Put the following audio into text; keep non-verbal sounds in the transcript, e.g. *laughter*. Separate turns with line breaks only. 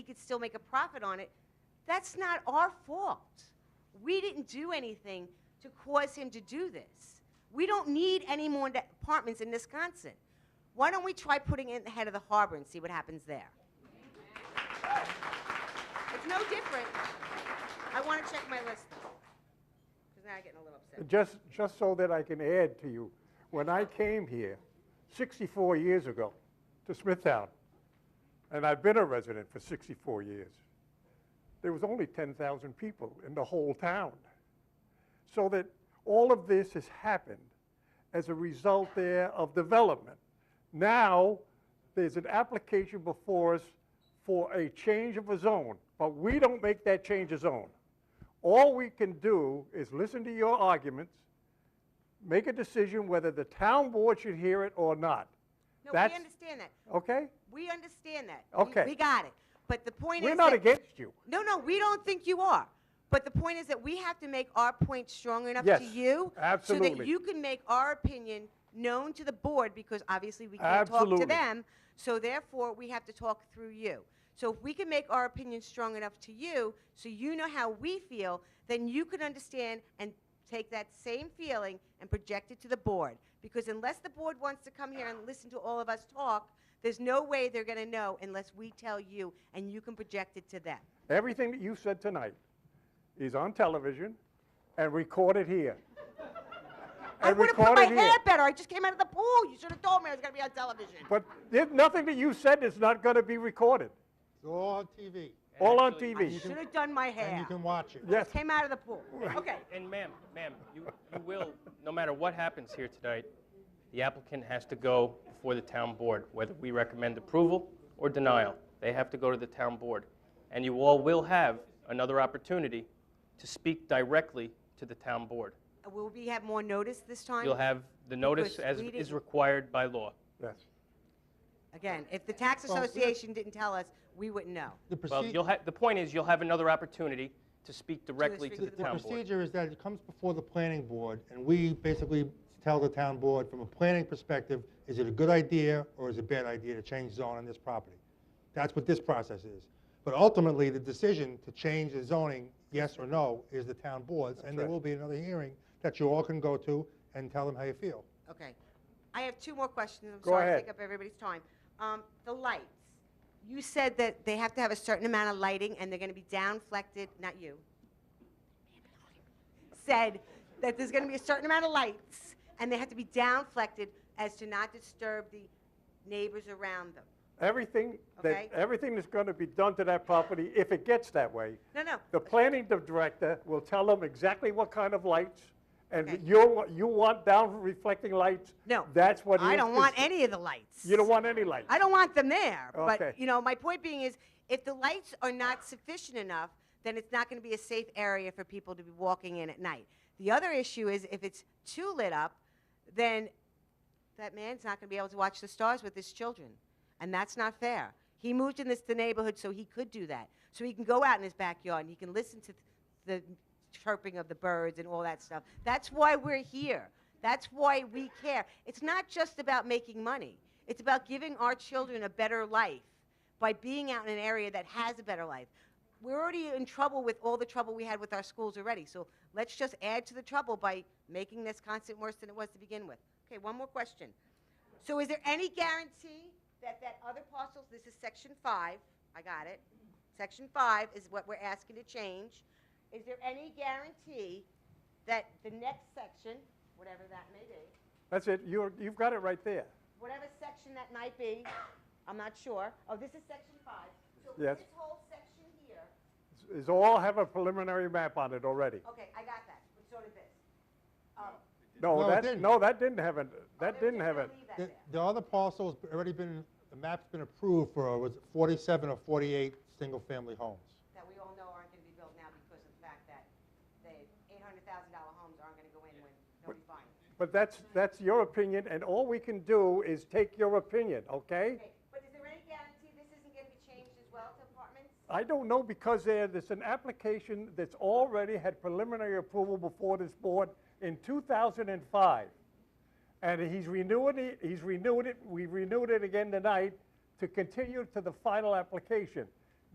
could still make a profit on it. That's not our fault. We didn't do anything to cause him to do this. We don't need any more da- apartments in Wisconsin. Why don't we try putting it in the head of the harbor and see what happens there? It's no different. I want to check my list, because now I'm getting a little upset.
Just, just so that I can add to you, when I came here 64 years ago to Smithtown, and I've been a resident for 64 years, there was only 10,000 people in the whole town. So that all of this has happened as a result there of development. Now, there's an application before us for a change of a zone, but we don't make that change of zone. All we can do is listen to your arguments, make a decision whether the town board should hear it or not.
No, we
That's-
understand that.
Okay?
We understand that. We-
Okay.
We got it. But the point is.
We're not
that-
against you.
No, no, we don't think you are. But the point is that we have to make our point strong enough
Yes,
to you. So that
absolutely.
you can make our opinion known to the board, because obviously we can't talk to
Absolutely.
them. So therefore, we have to talk through you. So if we can make our opinion strong enough to you, so you know how we feel, then you can understand and take that same feeling and project it to the board. Because unless the board wants to come here and listen to all of us talk, there's no way they're gonna know unless we tell you and you can project it to them.
Everything that you said tonight is on television and recorded
*laughs*
here.
I
And
would have put my
recorded here.
hair better. I just came out of the pool. You should have told me I was going to be on television.
But there's nothing that you said is not going to be recorded,
It's all on TV.
all on
I
TV.
should have done my hair.
And you can watch it.
Yes,
Came out of the pool. Okay.
And ma'am, ma'am, you, you will, no matter what happens here tonight, the applicant has to go before the town board, whether we recommend approval or denial. They have to go to the town board. And you all will have another opportunity to speak directly to the town board.
Will we have more notice this time?
You'll have the notice
Because
as
we
is
didn't-
required by law.
yes.
Again, if the tax
we're-
association didn't tell us, we wouldn't know.
The
Well,
proce-
you'll have, the point is, you'll have another opportunity to speak directly to
speak
the
to
the
town board.
procedure is that it comes before the planning board, and we basically tell the town board, from a planning perspective, is it a good idea or is it a bad idea to change zone on this property? That's what this process is. But ultimately, the decision to change the zoning, yes or no, is the town board's, and there
right.
will be another hearing that you all can go to and tell them how you feel.
Okay. I have two more questions. I'm
Go
sorry to
ahead.
take up everybody's time. Um, the lights. You said that they have to have a certain amount of lighting and they're going to be downflected, not you. Said that there's going to be a certain amount of lights and they have to be downflected as to not disturb the neighbors around them.
Everything,
Okay.
that, everything that's going to be done to that property, if it gets that way,
No, no.
the planning director will tell them exactly what kind of lights,
Okay.
and you, you want down reflecting lights?
No.
That's what.
I
he-
don't want any of the lights.
You don't want any lights?
I don't want them there. But,
Okay.
you know, my point being is, if the lights are not sufficient enough, then it's not going to be a safe area for people to be walking in at night. The other issue is if it's too lit up, then that man's not going to be able to watch the stars with his children. And that's not fair. He moved in this the neighborhood so he could do that. So he can go out in his backyard and he can listen to th- the chirping of the birds and all that stuff. That's why we're here. That's why we care. It's not just about making money. It's about giving our children a better life by being out in an area that has a better life. We're already in trouble with all the trouble we had with our schools already. So let's just add to the trouble by making this constant worse than it was to begin with. Okay, one more question. So is there any guarantee that that other parcels, this is section five, I got it. Section five is what we're asking to change. Is there any guarantee that the next section, whatever that may be,
That's it, you're, you've got it right there.
whatever section that might be, I'm not sure. Oh, this is section five. So
Yes.
this whole section here,
Is all have a preliminary map on it already?
okay, I got that, but so did this. Um,
No,
No, it
that,
didn't.
no, that didn't have it, that
they were
didn't
just
have
gonna
it.
leave that
The-
there.
The other parcel's already been, the map's been approved for, was it 47 or 48 single-family homes?
that we all know aren't going to be built now because of the fact that the $800,000 homes aren't going to go in when nobody buys them.
But that's, that's your opinion, and all we can do is take your opinion, okay?
Okay, but is there any guarantee this isn't going to be changed as well to apartments?
I don't know because there, there's an application that's already had preliminary approval before this board in 2005. And he's renewing it, he's renewed it, we renewed it again tonight to continue to the final application.